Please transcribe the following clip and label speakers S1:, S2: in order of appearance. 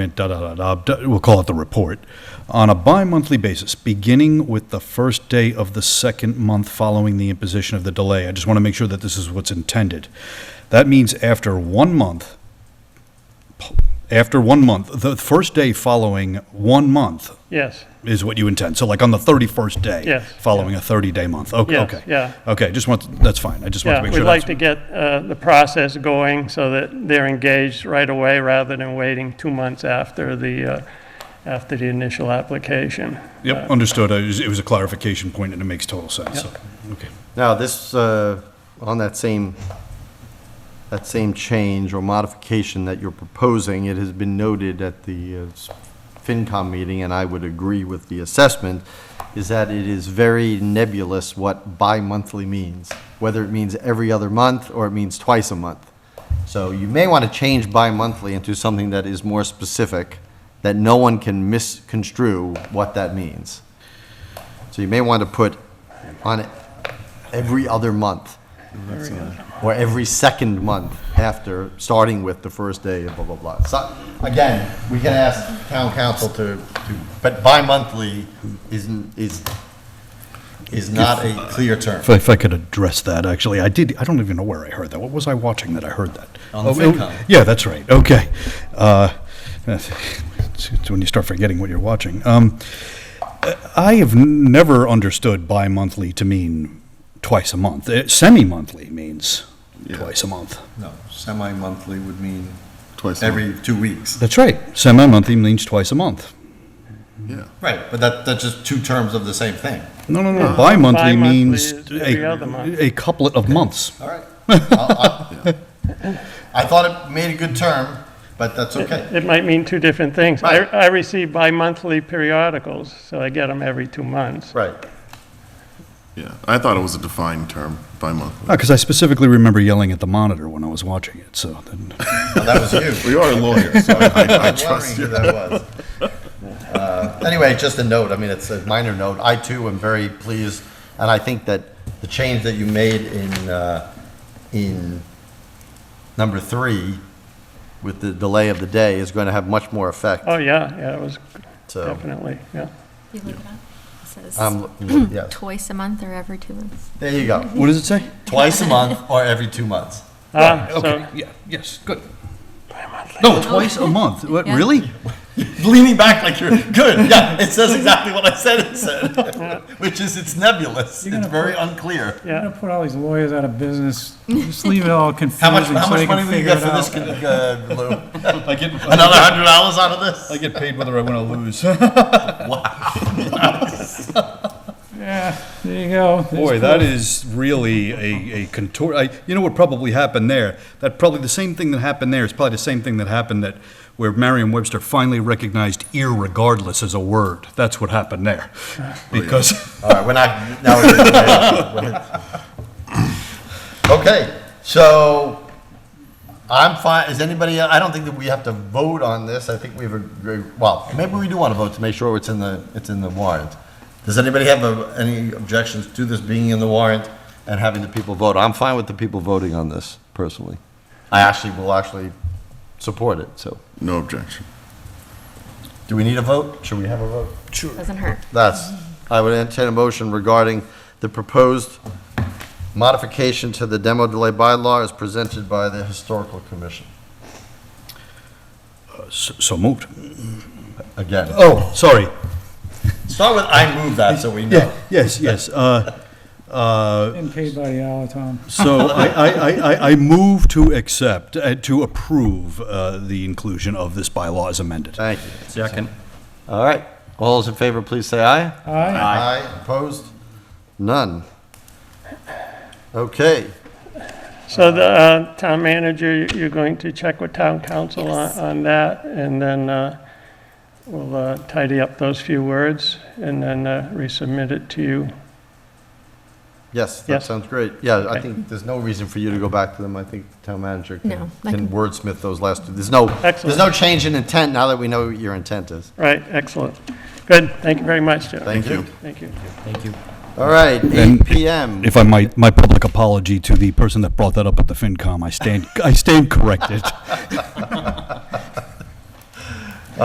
S1: da, da, da, da, we'll call it the report, on a bi-monthly basis, beginning with the first day of the second month following the imposition of the delay. I just want to make sure that this is what's intended. That means after one month, after one month, the first day following one month
S2: Yes,
S1: is what you intend. So like on the 31st day?
S2: Yes.
S1: Following a 30-day month? Okay,
S2: Yes,
S1: okay.
S2: yeah.
S1: Okay, just want, that's fine. I just want
S2: yeah,
S1: to make
S2: we'd
S1: sure.
S2: like to
S1: that's-
S2: get uh, the process going so that they're engaged right away rather than waiting two months after the, uh, after the initial application.
S1: Yep, understood. I was- It was a clarification point and it makes total sense. Okay.
S3: Now, this, uh, on that same, that same change or modification that you're proposing, it has been noted at the uh, FinCom meeting, and I would agree with the assessment, is that it is very nebulous what bi-monthly means, whether it means every other month or it means twice a month. So you may want to change bi-monthly into something that is more specific, that no one can misconstrue what that means. So you may want to put on every other month. Or every second month after, starting with the first day of blah, blah, blah. So, again, we can ask town council to, to, but bi-monthly isn't, is, is not a clear term.
S1: If I, if I could address that, actually, I did, I don't even know where I heard that. What was I watching that I heard that?
S3: On the
S1: Oh, it-
S3: FinCom.
S1: Yeah, that's right, okay. Uh, It's it's when you start forgetting what you're watching. Um, I have n- never understood bi-monthly to mean twice a month. Uh, Semi-monthly means twice a month.
S4: No, semi-monthly would mean
S5: Twice a
S4: every two weeks.
S1: That's right, semi-monthly means twice a month.
S5: Yeah.
S4: Right, but that, that's just two terms of the same thing.
S1: No, no, no, bi-monthly
S2: Uh, Bi-monthly
S1: means
S2: is every other month.
S1: a, a couplet of months.
S4: All right. I I thought it made a good term, but that's okay.
S2: It might mean two different things. I,
S4: Right.
S2: I receive bi-monthly periodicals, so I get them every two months.
S4: Right.
S5: Yeah. I thought it was a defined term by month.
S1: Because Uh, I specifically remember yelling at the monitor when I was watching it, so. then-
S4: Well, that was you.
S5: We are lawyers, so I, I
S4: I'm wondering
S5: trust
S4: who
S5: you.
S4: that was. Uh, Anyway, just a note, I mean, it's a minor note. I too am very pleased, and I think that the change that you made in, uh, in number three with the delay of the day is going to have much more effect,
S2: Oh, yeah, yeah, it was
S4: so.
S2: definitely, yeah.
S6: You look it up. It says
S4: Um,
S3: I'm looking- yes.
S6: twice a month or every two months.
S4: There you go.
S1: What does it say?
S4: Twice a month or every two months.
S2: Ah,
S1: Okay,
S2: so,
S1: yeah, yes, good. No, twice a month, what,
S6: Yeah.
S1: really?
S4: Leaning back like you're good. Yeah, it says exactly what I said it said, which is it's nebulous.
S7: You're
S4: It's
S7: gonna
S4: very unclear.
S7: You're gonna put all these lawyers out of business. Just leave it all confusing
S4: How much, how
S7: so they
S4: much money
S7: can
S4: will you
S7: figure
S4: get
S7: it
S4: for this,
S7: out.
S4: uh, Lou?
S1: I get,
S4: Another hundred dollars out of this?
S1: I get paid whether I win or lose.
S7: Yeah, there you go.
S1: Boy, that is really a, a contour, I, you know what probably happened there? That probably, the same thing that happened there is probably the same thing that happened that, where Merriam-Webster finally recognized irregardless as a word. That's what happened there. Because,
S4: All right, we're not, now we're Okay, so I'm fine, is anybody, I don't think that we have to vote on this, I think we've, agreed- well, maybe we do want to vote to make sure it's in the, it's in the warrant. Does anybody have uh, any objections to this being in the warrant and having the people vote? I'm fine with the people voting on this personally. I actually will actually support it, so.
S5: No objection.
S4: Do we need a vote? Should we have a vote?
S6: Doesn't hurt.
S4: That's, I would entertain a motion regarding the proposed modification to the demo delay bylaw as presented by the Historical Commission.
S1: so so moved.
S4: Again,
S1: Oh, sorry.
S4: start with I move that so we
S1: Yeah,
S4: know.
S1: yes, yes, uh, uh,
S7: Getting paid by the hour, Tom.
S1: So I, I, I- I, I move to accept, uh, to approve uh, the inclusion of this bylaw as amended.
S4: Thank you. Second. All right. All those in favor, please say aye.
S7: All right,
S4: Aye. Opposed? None. Okay.
S2: so the uh, town manager, you- you're going to check with town council on,
S6: Yes.
S2: on that, and then uh, we'll uh, tidy up those few words and then uh, resubmit it to you.
S4: Yes, that
S2: Yes.
S4: sounds great. Yeah, I think there's no reason for you to go back to them. I think the town manager
S6: No,
S4: can
S6: I
S4: can
S6: can-
S4: wordsmith those last two. There's no, there's
S2: Excellent.
S4: no change in intent now that we know what your intent is.
S2: Right, excellent. Good, thank you very much, Jeff.
S4: Thank you.
S2: Thank you.
S4: All right,
S1: And-
S4: 8 PM.
S1: If I might, my public apology to the person that brought that up at the FinCom, I stand, I stand corrected.